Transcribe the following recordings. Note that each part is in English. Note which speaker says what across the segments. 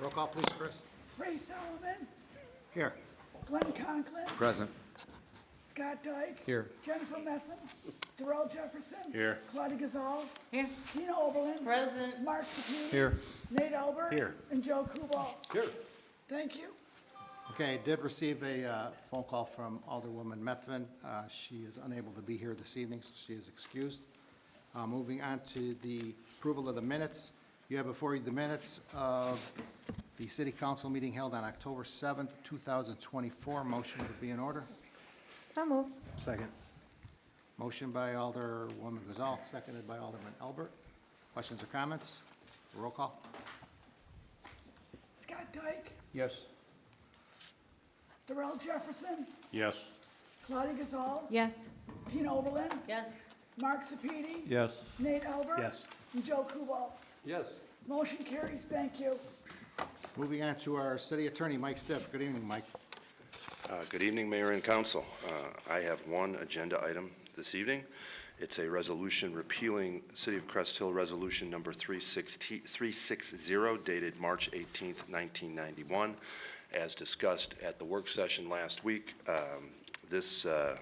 Speaker 1: Roll call, please, Chris.
Speaker 2: Ray Solomon,
Speaker 1: Here.
Speaker 2: Glenn Conklin,
Speaker 1: Present.
Speaker 2: Scott Dyke.
Speaker 1: Here.
Speaker 2: Jennifer Methvin, Darrell Jefferson.
Speaker 1: Here.
Speaker 2: Claudia Gazal,
Speaker 3: Here.
Speaker 2: Tina Oberlin.
Speaker 3: Present.
Speaker 2: Mark Sepiti.
Speaker 1: Here.
Speaker 2: Nate Albert.
Speaker 1: Here.
Speaker 2: And Joe Kubal.
Speaker 1: Here.
Speaker 2: Thank you.
Speaker 1: Okay, I did receive a uh, phone call from Alderwoman Methvin. Uh, She is unable to be here this evening, so she is excused. Uh, Moving on to the approval of the minutes. You have before you the minutes of the city council meeting held on October 7th, 2024. Motion would be in order.
Speaker 3: So moved.
Speaker 1: Second. Motion by Alderwoman Gazal, seconded by Alderman Albert. Questions or comments? Roll call.
Speaker 2: Scott Dyke,
Speaker 4: Yes.
Speaker 2: Darrell Jefferson,
Speaker 4: Yes.
Speaker 2: Claudia Gazal.
Speaker 3: Yes.
Speaker 2: Tina Oberlin,
Speaker 3: Yes.
Speaker 2: Mark Sepiti.
Speaker 4: Yes.
Speaker 2: Nate Albert.
Speaker 4: Yes.
Speaker 2: And Joe Kubal.
Speaker 4: Yes.
Speaker 2: Motion carries. Thank you.
Speaker 1: Moving on to our city attorney, Mike Stiff. Good evening, Mike.
Speaker 5: Uh, Good evening, Mayor and Council. Uh, I have one agenda item this evening. It's a resolution repealing City of Crest Hill Resolution Number 360 360 dated March 18, 1991. As discussed at the work session last week, um, this uh,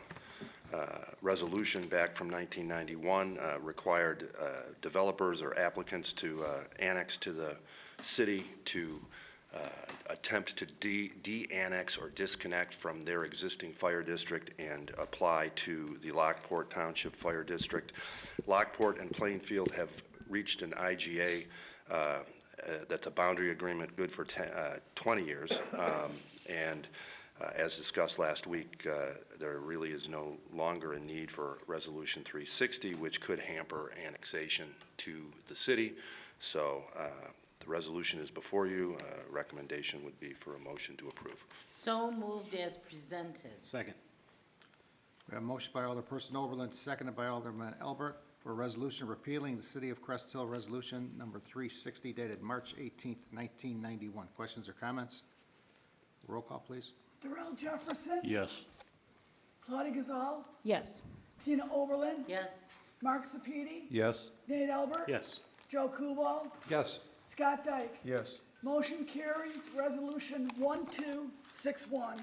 Speaker 5: uh, resolution back from 1991 uh, required uh, developers or applicants to uh, annex to the city to uh, attempt to de- de-annex or disconnect from their existing fire district and apply to the Lockport Township Fire District. Lockport and Plainfield have reached an IGA uh, uh, that's a boundary agreement good for 10 uh, 20 years. Um, And uh, As discussed last week, uh, there really is no longer a need for Resolution 360, which could hamper annexation to the city. So uh, the resolution is before you. Uh, Recommendation would be for a motion to approve.
Speaker 6: So moved as presented.
Speaker 4: Second.
Speaker 1: We have a motion by Alderperson Oberlin, seconded by Alderman Albert, for a resolution repealing the City of Crest Hill Resolution Number 360 dated March 18th, 1991. Questions or comments? Roll call, please.
Speaker 2: Darrell Jefferson.
Speaker 4: Yes.
Speaker 2: Claudia Gazal,
Speaker 3: Yes.
Speaker 2: Tina Oberlin.
Speaker 6: Yes,
Speaker 2: Mark Sepiti.
Speaker 4: Yes.
Speaker 2: Nate Albert.
Speaker 4: Yes.
Speaker 2: Joe Kubal.
Speaker 4: Yes.
Speaker 2: Scott Dyke.
Speaker 4: Yes.
Speaker 2: Motion carries. Resolution 1261.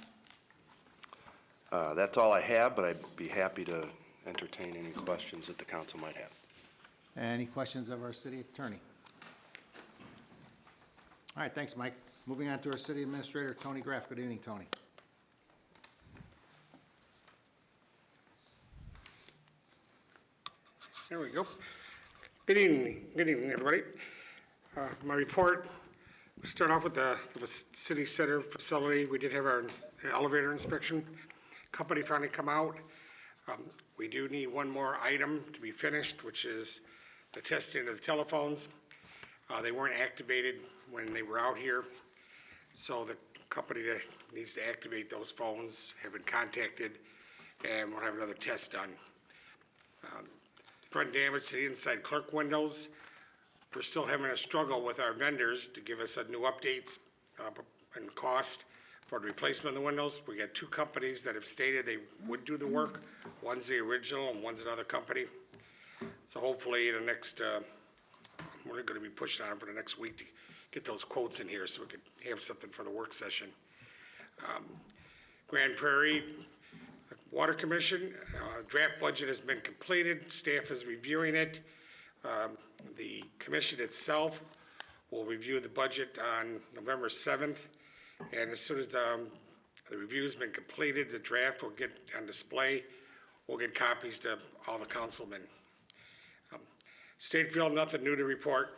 Speaker 5: Uh, That's all I have, but I'd be happy to entertain any questions that the council might have.
Speaker 1: Any questions of our city attorney? All right, thanks, Mike. Moving on to our city administrator, Tony Graff. Good evening, Tony.
Speaker 7: There we go. Good evening, good evening, everybody. Uh, My report, we start off with the, with the city center facility. We did have our ins- elevator inspection. Company finally come out. Um, We do need one more item to be finished, which is the testing of the telephones. Uh, They weren't activated when they were out here, so the company that needs to activate those phones have been contacted, and we'll have another test done front damage to the inside clerk windows. We're still having a struggle with our vendors to give us a new updates uh, and cost for the replacement of the windows. We got two companies that have stated they would do the work. One's the original and one's another company. So hopefully the next, uh, we're gonna be pushing on for the next week to get those quotes in here so we could have something for the work session. Um, Grand Prairie, Water Commission, uh, draft budget has been completed, staff is reviewing it. Um, The commission itself will review the budget on November 7th, and as soon as the the review's been completed, the draft will get on display. We'll get copies to all the councilmen. Um, State Field, nothing new to report.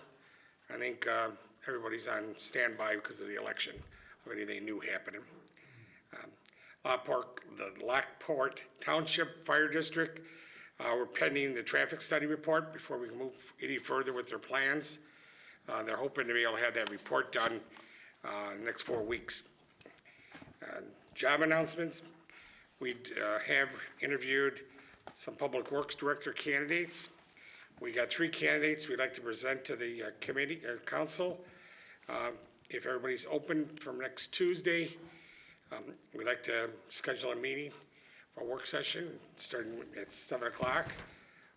Speaker 7: I think uh, everybody's on standby because of the election, of anything new happening. Lockport, uh, the Lockport Township Fire District. Uh, we're pending the traffic study report before we can move any further with their plans. Uh, they're hoping to be able to have that report done, uh, in the next four weeks. Uh, Job announcements, we, uh, have interviewed some Public Works Director candidates. We got three candidates we'd like to present to the uh, committee, uh, council. Uh, if everybody's open from next Tuesday, um, We'd like to schedule a meeting, a work session, starting at seven o'clock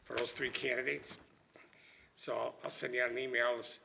Speaker 7: for those three candidates. So I'll- I'll send you out an email as